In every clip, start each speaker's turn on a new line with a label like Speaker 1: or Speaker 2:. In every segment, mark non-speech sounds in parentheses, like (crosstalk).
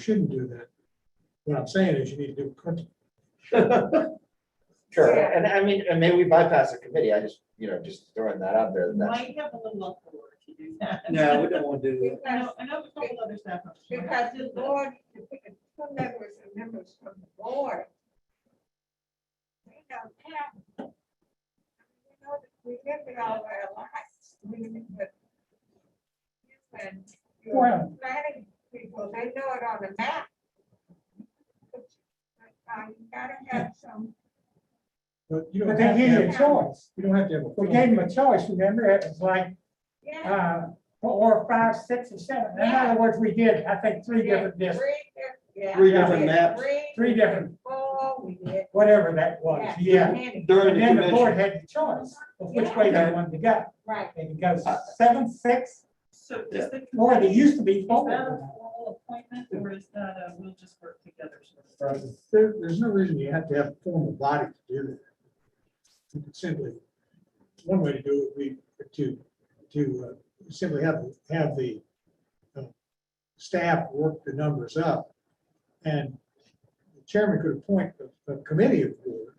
Speaker 1: shouldn't do that. What I'm saying is you need to do cut-
Speaker 2: Sure,
Speaker 3: Yeah.
Speaker 2: and I mean, and maybe we bypass the committee, I just, you know, just throwing that out there, that's,
Speaker 4: Might have a little uproar to do that.
Speaker 5: No, we don't want to do that.
Speaker 4: I know,
Speaker 3: Because,
Speaker 4: I know there's a couple other staff. members who might
Speaker 3: because
Speaker 4: have to
Speaker 3: the
Speaker 4: do that.
Speaker 3: board, if we could put members and members from the board. We don't have. we know that We live it all our lives. We live it. And your
Speaker 1: Well-
Speaker 3: planning people, they know it on the map. But uh, you gotta have some.
Speaker 1: But you
Speaker 6: But
Speaker 1: don't
Speaker 6: they
Speaker 1: have to
Speaker 6: gave you a
Speaker 1: have,
Speaker 6: choice.
Speaker 1: you don't have to have a.
Speaker 6: We gave them a choice, remember? It was like,
Speaker 3: Yeah.
Speaker 6: uh, four, five, six, or seven. In other words, we did, I think, three different districts,
Speaker 3: Three diff- yeah,
Speaker 5: Three
Speaker 3: we
Speaker 5: different
Speaker 3: did
Speaker 5: maps.
Speaker 6: Three different-
Speaker 3: Four, we did.
Speaker 6: whatever that was, yeah.
Speaker 3: many,
Speaker 5: During
Speaker 6: And
Speaker 5: the
Speaker 6: then the
Speaker 5: commission,
Speaker 6: board had the choice of which way they wanted to go.
Speaker 3: Right.
Speaker 6: They could go seven, six,
Speaker 4: So
Speaker 5: Yeah.
Speaker 4: is the.
Speaker 6: or they used to be
Speaker 4: Is
Speaker 6: four.
Speaker 4: that a formal appointment or is that a, we'll just work together? sort of?
Speaker 1: There, there's no reason you have to have a formal body to do that. You could simply, one way to do it, we, to, to uh, simply have, have the uh, staff work the numbers up. And the chairman could appoint a, a committee of board,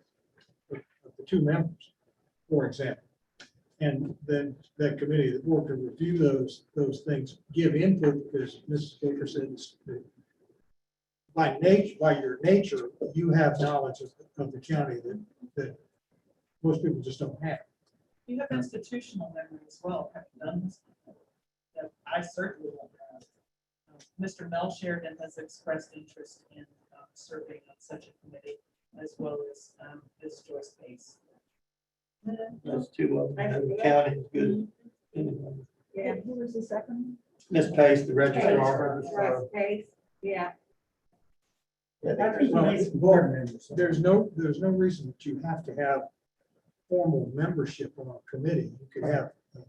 Speaker 1: of of the two members, for example. And then that committee, of the board could review those, those things, give input, because Mrs. Baker said it's- the by nature, by your nature, you have knowledge of, of the county that, that most people just don't have.
Speaker 4: You have institutional memory as well, have you done this? before? That I certainly won't have. Um, Mr. Mel Sheridan has expressed interest in um, serving on such a committee as well as um, this Joyce Pace.
Speaker 5: those two of them, and the county is good. Anyway,
Speaker 3: Yeah.
Speaker 7: Who was the second?
Speaker 5: Miss Pace, the registrar.
Speaker 3: Right, space, yeah.
Speaker 2: yeah,
Speaker 6: That's
Speaker 2: there's-
Speaker 6: what makes board members.
Speaker 1: There's no, there's no reason that you have to have formal membership on a committee. You could have, uh,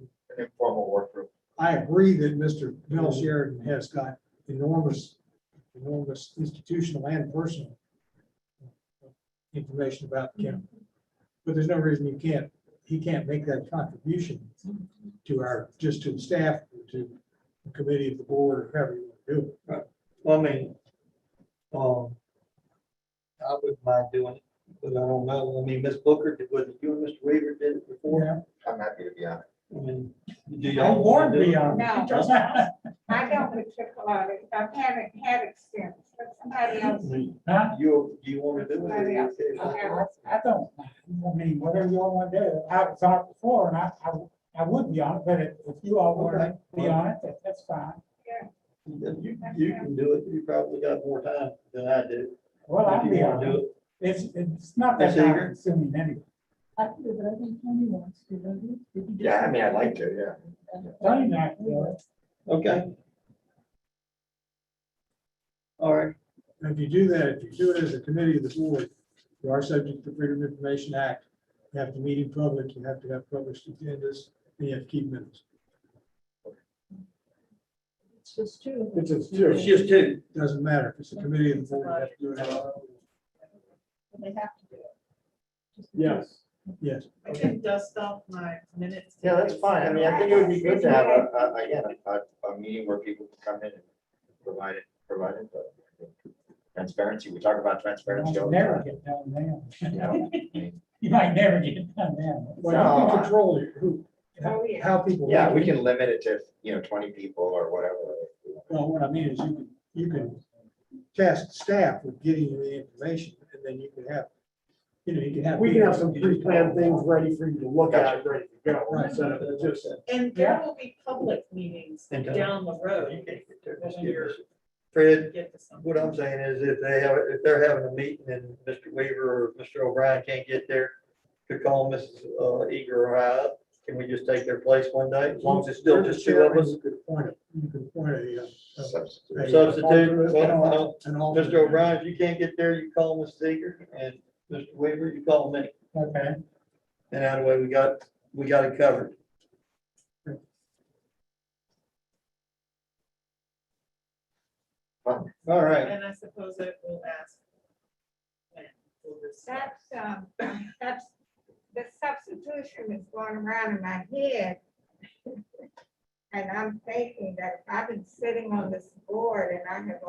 Speaker 2: an informal work group.
Speaker 1: I agree that Mr. Mel Sheridan has got enormous, enormous institutional and personal information about the county. But there's no reason you can't, he can't make that contribution to our, just to the staff, to the committee of the board, or however you want to do it.
Speaker 5: Well, I mean, um, I wouldn't mind doing it, but I don't know, I mean, Miss Booker, did, was it you and Mr. Weaver did it before?
Speaker 2: I'm happy to be on it.
Speaker 5: I mean, do
Speaker 6: I
Speaker 5: y'all want
Speaker 6: warned
Speaker 5: to do
Speaker 6: me
Speaker 5: it?
Speaker 6: on.
Speaker 3: No.
Speaker 6: Huh? (laughs)
Speaker 3: I don't particularly, I haven't had experience, but somebody else.
Speaker 5: You, do you want to do
Speaker 3: Somebody else.
Speaker 5: it?
Speaker 3: I haven't.
Speaker 6: I don't, I mean, whatever y'all want to do, I was on it before and I, I, I would be on it, but if if you all want to be on it, that- that's fine.
Speaker 5: You, you can do it, you probably got more time than I do.
Speaker 6: Well,
Speaker 5: If
Speaker 6: I'd
Speaker 5: you
Speaker 6: be
Speaker 5: wanna
Speaker 6: on
Speaker 5: do
Speaker 6: it. It's, it's not that
Speaker 5: Ms. Eager?
Speaker 6: time consuming anyway.
Speaker 7: I think, but I think Tony wants to, don't you? Did you just-
Speaker 2: Yeah, I mean, I'd like to, yeah.
Speaker 6: Tony and I, uh,
Speaker 5: Okay. All right,
Speaker 1: And if you do that, if you do it as a committee of the board, you are subject to Freedom of Information Act. You have to meet in public, you have to have published agendas, and you have to keep minutes.
Speaker 7: It's just two.
Speaker 1: It's, it's
Speaker 5: it's just two.
Speaker 1: Doesn't matter, if it's a committee of the board, you have to do it.
Speaker 7: They have to do it. Just the two.
Speaker 1: Yes. Yes,
Speaker 4: I can dust off my minutes.
Speaker 2: Yeah, that's fine, I mean, I think it would be good to have a, a, a- yeah, a, a meeting where people can come in and provide it, provide it, but transparency, we talk about transparency all
Speaker 6: You'll
Speaker 2: the
Speaker 6: never
Speaker 2: time.
Speaker 6: get done now. (laughs)
Speaker 2: you know? I mean,
Speaker 6: You might never get done now.
Speaker 1: well, you
Speaker 2: No,
Speaker 1: can
Speaker 2: I-
Speaker 1: control who,
Speaker 3: Oh, yeah.
Speaker 1: how people.
Speaker 2: Yeah, we can limit it to, you know, twenty people or whatever.
Speaker 1: Well, what I mean is you can, you can task staff with getting you the information, and then you can have, you know, you can have.
Speaker 8: We can have some pre-planned things ready for you to look at, and ready to go,
Speaker 1: Right.
Speaker 8: instead of just.
Speaker 4: And there will be public meetings
Speaker 5: And, uh,
Speaker 4: down the
Speaker 5: You
Speaker 4: road.
Speaker 5: can't get there,
Speaker 4: When
Speaker 5: just give
Speaker 4: you're-
Speaker 5: us- Fred,
Speaker 4: Get to something.
Speaker 5: what I'm saying is if they have, if they're having a meeting and Mr. Weaver or Mr. O'Brien can't get there, to call Mrs. uh, Eager or I, up, can we just take their place one day, as long as it's still just two of us?
Speaker 1: You could point it, you could point a, uh, a
Speaker 2: Substitute.
Speaker 5: Substitute, well, I don't-
Speaker 1: And all.
Speaker 5: Mr. O'Brien, if you can't get there, you call Mrs. Eager, and Mr. Weaver, you call me,
Speaker 6: Okay,
Speaker 5: and out of the way, we got, we got it covered. All right.
Speaker 4: And I suppose I will ask. when we'll receive.
Speaker 3: That's, um, that's, the substitution is going around in my head. And I'm thinking that I've been sitting on this board and I have